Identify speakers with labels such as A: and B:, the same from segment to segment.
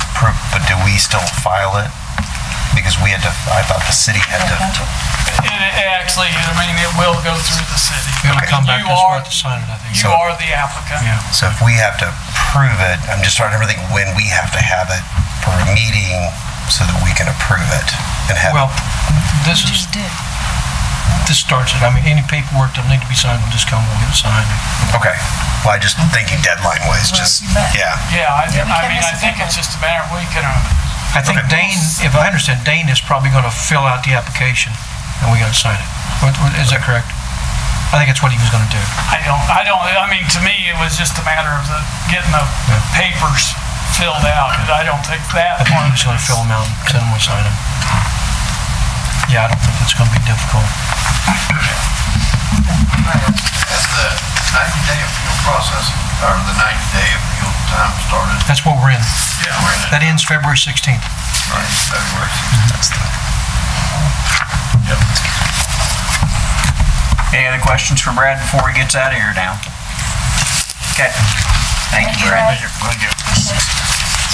A: approved, but do we still file it? Because we had to, I thought the city had to,
B: It, it actually, I mean, it will go through the city.
C: It'll come back
B: You
C: as
B: are-
C: worth the sign, I think.
B: You are the applicant.
C: Yeah.
A: so if we have to approve it, I'm just trying to think when we have to have it for a meeting so that we can approve it and have,
C: Well,
A: it.
C: this is,
D: did.
C: this starts it. I mean, any paperwork that need to be signed will just come, we'll get it signed.
A: okay. Well, I just thinking deadline wise, just,
D: you bet.
A: yeah.
B: Yeah, I,
D: Yeah, we
B: I
D: can't
B: mean,
D: miss
B: I
D: a
B: think
D: deadline.
B: it's just a matter of we can, uh,
C: I think
A: Okay.
C: Dane, if I understand, Dane is probably going to fill out the application and we got to sign it. What- what- Is that correct? I think that's what he was going to do.
B: I don't, I don't, I mean, to me, it was just a matter of the, getting the papers filled out, and I don't think that
C: I think
B: one
C: he was going to fill them out and send them, we sign them. Yeah, I don't think it's going to be difficult.
E: Has the 90-day appeal process, or the 90-day appeal time started?
C: That's what we're in.
E: Yeah. We're in it,
C: That ends February 16th.
E: right, Mm-hmm. February.
A: that's the-
F: Any other questions for Brad before he gets out of here now? Okay. Thank you, Brad.
E: Thank you.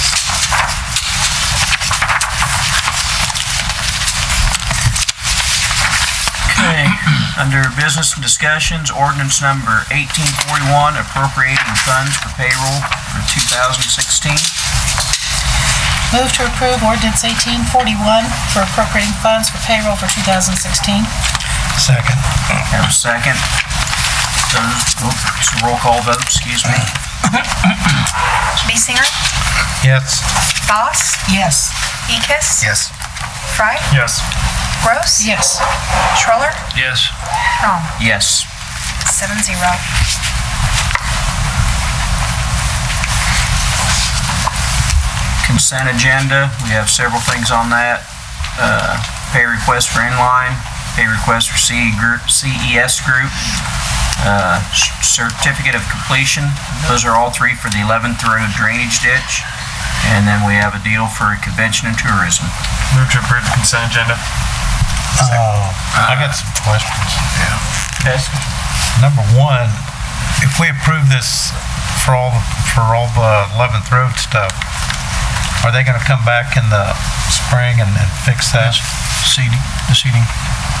F: Okay. Under business and discussions, ordinance number 1841, appropriating funds for payroll for 2016.
D: Move to approve ordinance 1841 for appropriating funds for payroll for 2016.
C: Second.
F: Have a second. Those, oh, it's a roll call vote, excuse me.
G: Besinger,
C: Yes.
G: Boss,
D: Yes.
G: Ekis,
A: Yes.
G: Fry,
C: Yes.
G: Gross,
D: Yes.
G: Schroller,
C: Yes.
G: Crom,
F: Yes.
G: seven zero.
F: Consent agenda, we have several things on that. Uh, Pay request for inline, pay request for CE group, CES group, uh, certificate of completion. Those are all three for the 11th Road drainage ditch. And then we have a deal for convention and tourism.
H: Move to approve the consent agenda. Oh, I got some questions.
F: Okay.
H: Number one, if we approve this for all, for all the 11th Road stuff, are they going to come back in the spring and and fix that?
C: Seating, the seating.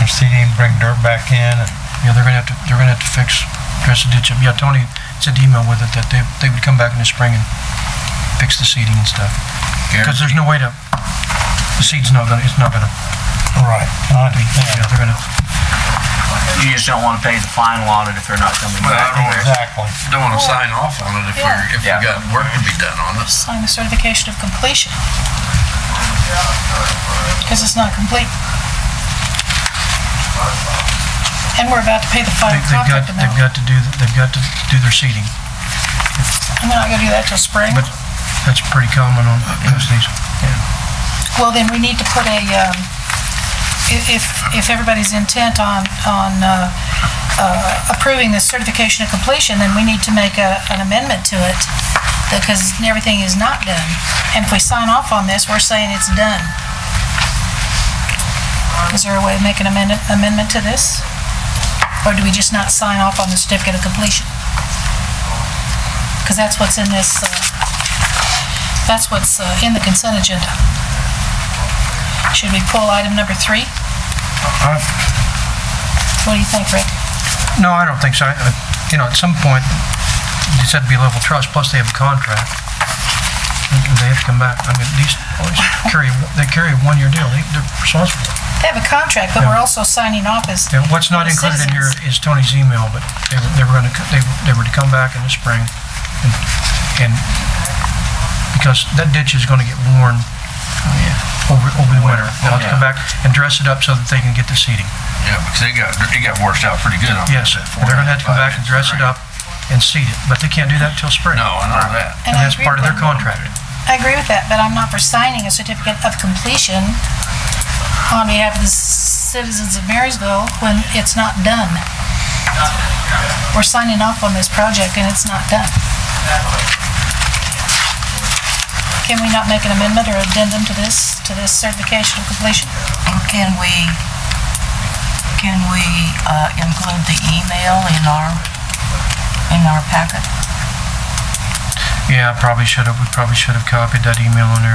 H: Or seeding, bring dirt back in? and-
C: Yeah, they're gonna have to, they're gonna have to fix, dress the ditch up. Yeah, Tony sent an email with it that they, they would come back in the spring and fix the seeding and stuff. Because there's no way to, the seed's not gonna, it's not gonna. Right. Yeah, they're gonna,
F: You just don't want to pay the fine on it if they're not coming
E: Well, I
F: back.
E: don't want to,
H: Exactly.
E: don't want to sign off on it if we're, if we
F: Yeah.
E: got work to be done on it.
D: Sign the certification of completion. Because it's not complete. And we're about to pay the
C: they-
D: final
C: they've got,
D: contract
C: they've
D: amount.
C: got to do, th- they've got to do their seeding.
D: And they're not gonna do that till spring.
C: But that's pretty common on most of these.
D: Well, then we need to put a, um, i- if, if everybody's intent on, on uh, uh, approving the certification of completion, then we need to make a, an amendment to it, because everything is not done. And if we sign off on this, we're saying it's done. Is there a way to make an amendment, amendment to this? Or do we just not sign off on the certificate of completion? Because that's what's in this, uh, that's what's uh, in the consent agenda. Should we pull item number three? What do you think, Rick?
C: No, I don't think so. I- I- You know, at some point, it's had to be a level of trust, plus they have a contract. And They have to come back. I mean, these always carry, they carry a one-year deal. They- They're responsible.
D: They have a contract, but we're also signing off as,
C: Yeah, what's not included in here is Tony's email, but they were, they were gonna, co- they, were- they were to come back in the spring and, and, because that ditch is gonna get worn
D: Oh,
C: over, over the winter. They'll have to come back and dress it up so that they can get the seeding.
E: Yeah, because it got, it got washed out pretty good on that.
C: Yes, they're gonna have to come back and dress it up and seed it, but they can't do that till spring.
E: No, I know that.
C: And
D: I
C: that's
D: agree
C: part of
D: with
C: their contract.
D: that. I agree with that, but I'm not for signing a certificate of completion on behalf of the citizens of Marysville when it's not done. We're signing off on this project and it's not done. Can we not make an amendment or addendum to this, to this certification of completion?
I: Can we, can we uh, include the email in our, in our packet?
C: Yeah, probably should have, we probably should have copied that email on there.